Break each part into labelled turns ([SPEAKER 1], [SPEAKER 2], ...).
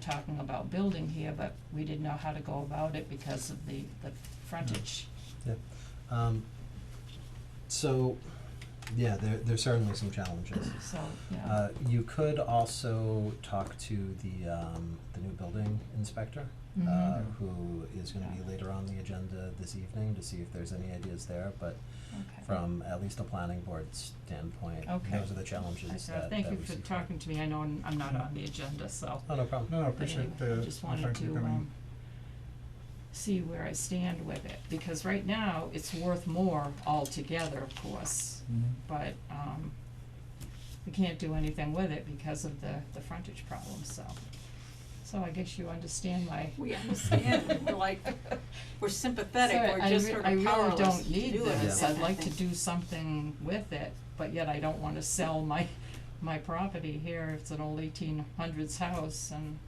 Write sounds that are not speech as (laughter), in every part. [SPEAKER 1] talking about building here, but we didn't know how to go about it because of the, the frontage.
[SPEAKER 2] Yep. Um, so, yeah, there, there's certainly some challenges.
[SPEAKER 1] So, yeah,
[SPEAKER 2] Uh, you could also talk to the, um, the new building inspector, uh,
[SPEAKER 1] Mhm.
[SPEAKER 2] who is gonna be later on the agenda this evening to see if there's any ideas there, but
[SPEAKER 1] okay.
[SPEAKER 2] from at least a planning board standpoint,
[SPEAKER 1] Okay.
[SPEAKER 2] those are the
[SPEAKER 1] I
[SPEAKER 2] challenges
[SPEAKER 1] said,
[SPEAKER 2] that,
[SPEAKER 1] thank
[SPEAKER 2] that
[SPEAKER 1] you
[SPEAKER 2] we
[SPEAKER 1] for
[SPEAKER 2] see.
[SPEAKER 1] talking to me, I know I'm I'm not on the agenda, so.
[SPEAKER 2] Oh, no problem.
[SPEAKER 3] No, I
[SPEAKER 1] but anyway,
[SPEAKER 3] appreciate the,
[SPEAKER 1] I just wanted
[SPEAKER 3] thank
[SPEAKER 1] to,
[SPEAKER 3] you
[SPEAKER 1] um,
[SPEAKER 3] coming.
[SPEAKER 1] see where I stand with it, because right now, it's worth more altogether, of course.
[SPEAKER 3] Mhm.
[SPEAKER 1] But, um, we can't do anything with it because of the, the frontage problem, so. So I guess you understand my.
[SPEAKER 4] (laughs) We understand, we're like, we're sympathetic,
[SPEAKER 1] Sorry,
[SPEAKER 4] we're just
[SPEAKER 1] I re-
[SPEAKER 4] sort of powerless to do
[SPEAKER 1] I really
[SPEAKER 4] it.
[SPEAKER 1] don't need this,
[SPEAKER 2] Yeah.
[SPEAKER 1] I'd like to do something with it, but yet I don't wanna sell my, my property here, it's an old eighteen hundreds house and,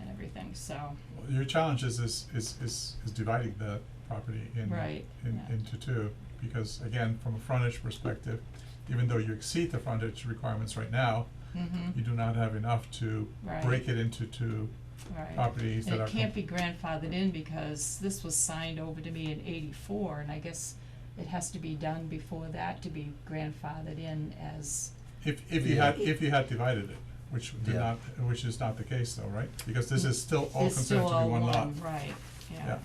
[SPEAKER 1] and everything, so,
[SPEAKER 3] Well, Mm-hmm. Your challenge is, is, is, is is dividing the property in,
[SPEAKER 1] Right,
[SPEAKER 3] in,
[SPEAKER 1] yeah.
[SPEAKER 3] into two, because again, from a frontage perspective, even though you exceed the frontage requirements right now,
[SPEAKER 1] mhm,
[SPEAKER 3] you do not have enough to
[SPEAKER 1] Right.
[SPEAKER 3] break it into two
[SPEAKER 1] right.
[SPEAKER 3] properties that
[SPEAKER 1] And
[SPEAKER 3] are.
[SPEAKER 1] it can't
[SPEAKER 3] com-
[SPEAKER 1] be grandfathered in because this was signed over to me in eighty-four, and I guess it has to be done before that to be grandfathered in as,
[SPEAKER 3] If, if you
[SPEAKER 2] Yeah.
[SPEAKER 3] had, if you had divided it, which did
[SPEAKER 2] Yeah.
[SPEAKER 3] not, which is not the case though, right? Because this is still all
[SPEAKER 1] Mm, it's
[SPEAKER 3] considered
[SPEAKER 1] still
[SPEAKER 3] to be
[SPEAKER 1] all
[SPEAKER 3] one lot.
[SPEAKER 1] one, right, yeah,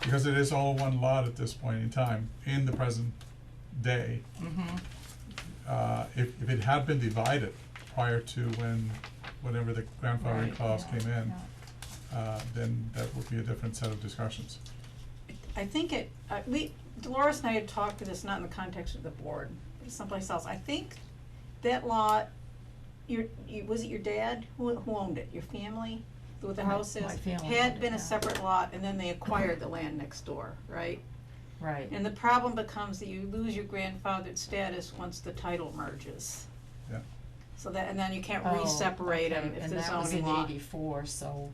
[SPEAKER 3] Because it is all one lot at this point in time, in the present day.
[SPEAKER 1] mhm,
[SPEAKER 3] uh, if, if it had been divided prior to when, whenever the grandfathering
[SPEAKER 1] right,
[SPEAKER 3] clause
[SPEAKER 1] yeah,
[SPEAKER 3] came in,
[SPEAKER 1] yeah.
[SPEAKER 3] uh, then that would be a different set of discussions.
[SPEAKER 4] I think it, uh, we, Dolores and I had talked to this, not in the context of the board, but someplace else, I think that lot, your, you, was it your dad, who, who owned it, your family, with the
[SPEAKER 1] My-
[SPEAKER 4] houses?
[SPEAKER 1] my family owned it,
[SPEAKER 4] Had been
[SPEAKER 1] yeah.
[SPEAKER 4] a separate lot, and then they acquired the land next door, right?
[SPEAKER 1] Right.
[SPEAKER 4] And the problem becomes that you lose your grandfathered status once the title merges.
[SPEAKER 3] Yeah.
[SPEAKER 4] So that, and then you can't
[SPEAKER 1] Oh,
[SPEAKER 4] re-separate them
[SPEAKER 1] okay,
[SPEAKER 4] if the
[SPEAKER 1] And
[SPEAKER 4] zoning law.
[SPEAKER 1] that was in eighty-four, so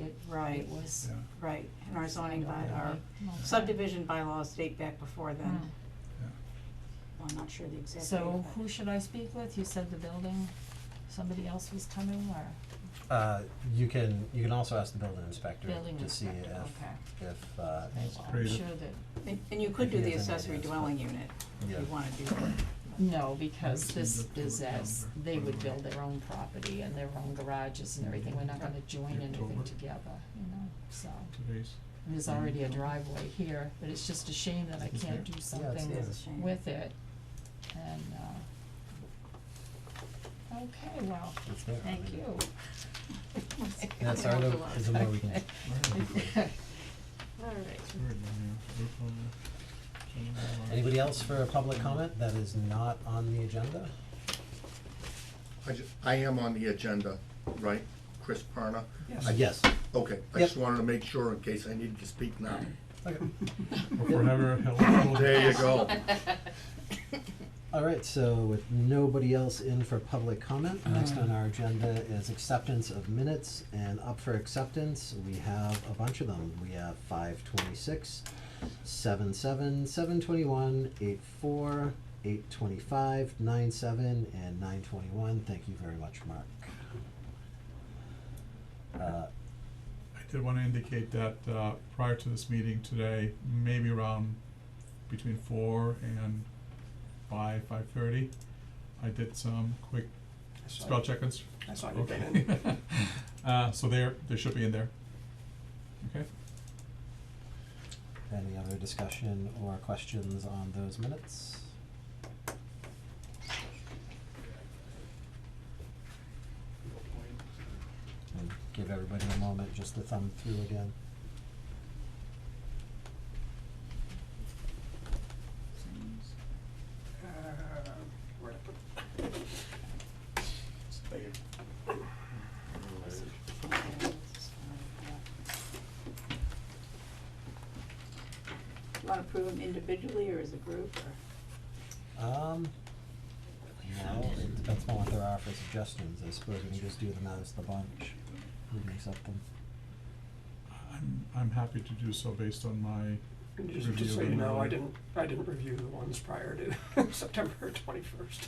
[SPEAKER 1] it,
[SPEAKER 4] Right.
[SPEAKER 1] it was.
[SPEAKER 3] Yeah.
[SPEAKER 4] Right, and our zoning by, our
[SPEAKER 1] Okay.
[SPEAKER 4] subdivision bylaws date back before then.
[SPEAKER 1] Mm.
[SPEAKER 4] Well, I'm not sure the exact date.
[SPEAKER 1] So
[SPEAKER 4] but-
[SPEAKER 1] who should I speak with? You said the building, somebody else was coming or
[SPEAKER 2] Uh, you can, you can also ask the building inspector
[SPEAKER 1] building
[SPEAKER 2] to see
[SPEAKER 1] inspector, okay.
[SPEAKER 2] if, if, uh,
[SPEAKER 1] Well, I'm
[SPEAKER 3] creative.
[SPEAKER 1] sure that,
[SPEAKER 4] And, and you could
[SPEAKER 2] If
[SPEAKER 4] do
[SPEAKER 2] he
[SPEAKER 4] the
[SPEAKER 2] has any
[SPEAKER 4] accessory
[SPEAKER 2] ideas, but-
[SPEAKER 4] dwelling unit if
[SPEAKER 2] Yeah.
[SPEAKER 4] you wanna do that. (laughs)
[SPEAKER 1] no, because
[SPEAKER 3] Let's
[SPEAKER 1] this
[SPEAKER 3] look to
[SPEAKER 1] is
[SPEAKER 3] the
[SPEAKER 1] as,
[SPEAKER 3] calendar.
[SPEAKER 1] they would
[SPEAKER 3] Mhm.
[SPEAKER 1] build their own property and their own garages and everything. We're not gonna join anything
[SPEAKER 3] October.
[SPEAKER 1] together, you know, so.
[SPEAKER 3] Today's,
[SPEAKER 1] There's already a driveway here, but it's just a shame that I
[SPEAKER 3] Is
[SPEAKER 1] can't do
[SPEAKER 3] there?
[SPEAKER 2] Mm-hmm. it's
[SPEAKER 1] something
[SPEAKER 2] there.
[SPEAKER 4] It's a shame.
[SPEAKER 1] with it, and, uh, okay, well,
[SPEAKER 2] it's there. I
[SPEAKER 1] thank
[SPEAKER 2] mean,
[SPEAKER 4] (laughs)
[SPEAKER 1] you.
[SPEAKER 2] That's our little, is there more we can,
[SPEAKER 1] Okay. (laughs) All right,
[SPEAKER 4] (laughs)
[SPEAKER 2] anybody else for a public comment that is not on the agenda?
[SPEAKER 5] I ju- I am on the agenda, right, Chris Parna?
[SPEAKER 2] Uh, yes,
[SPEAKER 5] Okay, I
[SPEAKER 2] Yep.
[SPEAKER 5] just wanted to make sure in case I needed to speak now.
[SPEAKER 2] okay.
[SPEAKER 3] or forever held. held-
[SPEAKER 5] There you (laughs) go.
[SPEAKER 2] (laughs) All right, so with nobody else in for public comment, next on our agenda is acceptance of minutes. And up for acceptance, we have a bunch of them. We have five twenty-six, seven seven, seven twenty-one, eight four, eight twenty-five, nine seven, and nine twenty-one. Thank you very much, Mark. Uh,
[SPEAKER 3] I did wanna indicate that, uh, prior to this meeting today, maybe around between four and five, five-thirty, I did some quick spell check and
[SPEAKER 6] I saw you come
[SPEAKER 3] Okay. (laughs)
[SPEAKER 6] in.
[SPEAKER 3] Uh, so there, they should be in there. Okay,
[SPEAKER 2] Any other discussion or questions on those minutes? And give everybody a moment just to thumb through again.
[SPEAKER 6] Uh, where'd I put- It's there.
[SPEAKER 4] Want to prove them individually or as a group or?
[SPEAKER 2] Um, no, it depends on what there are for suggestions, I suppose we can just do them as the bunch, we can accept them.
[SPEAKER 3] I'm, I'm happy to do so based on my
[SPEAKER 6] And
[SPEAKER 3] review
[SPEAKER 6] Just, just so
[SPEAKER 3] of
[SPEAKER 6] you
[SPEAKER 3] my
[SPEAKER 6] know, I
[SPEAKER 3] own.
[SPEAKER 6] (laughs) didn't, I didn't review the ones prior to September twenty-first.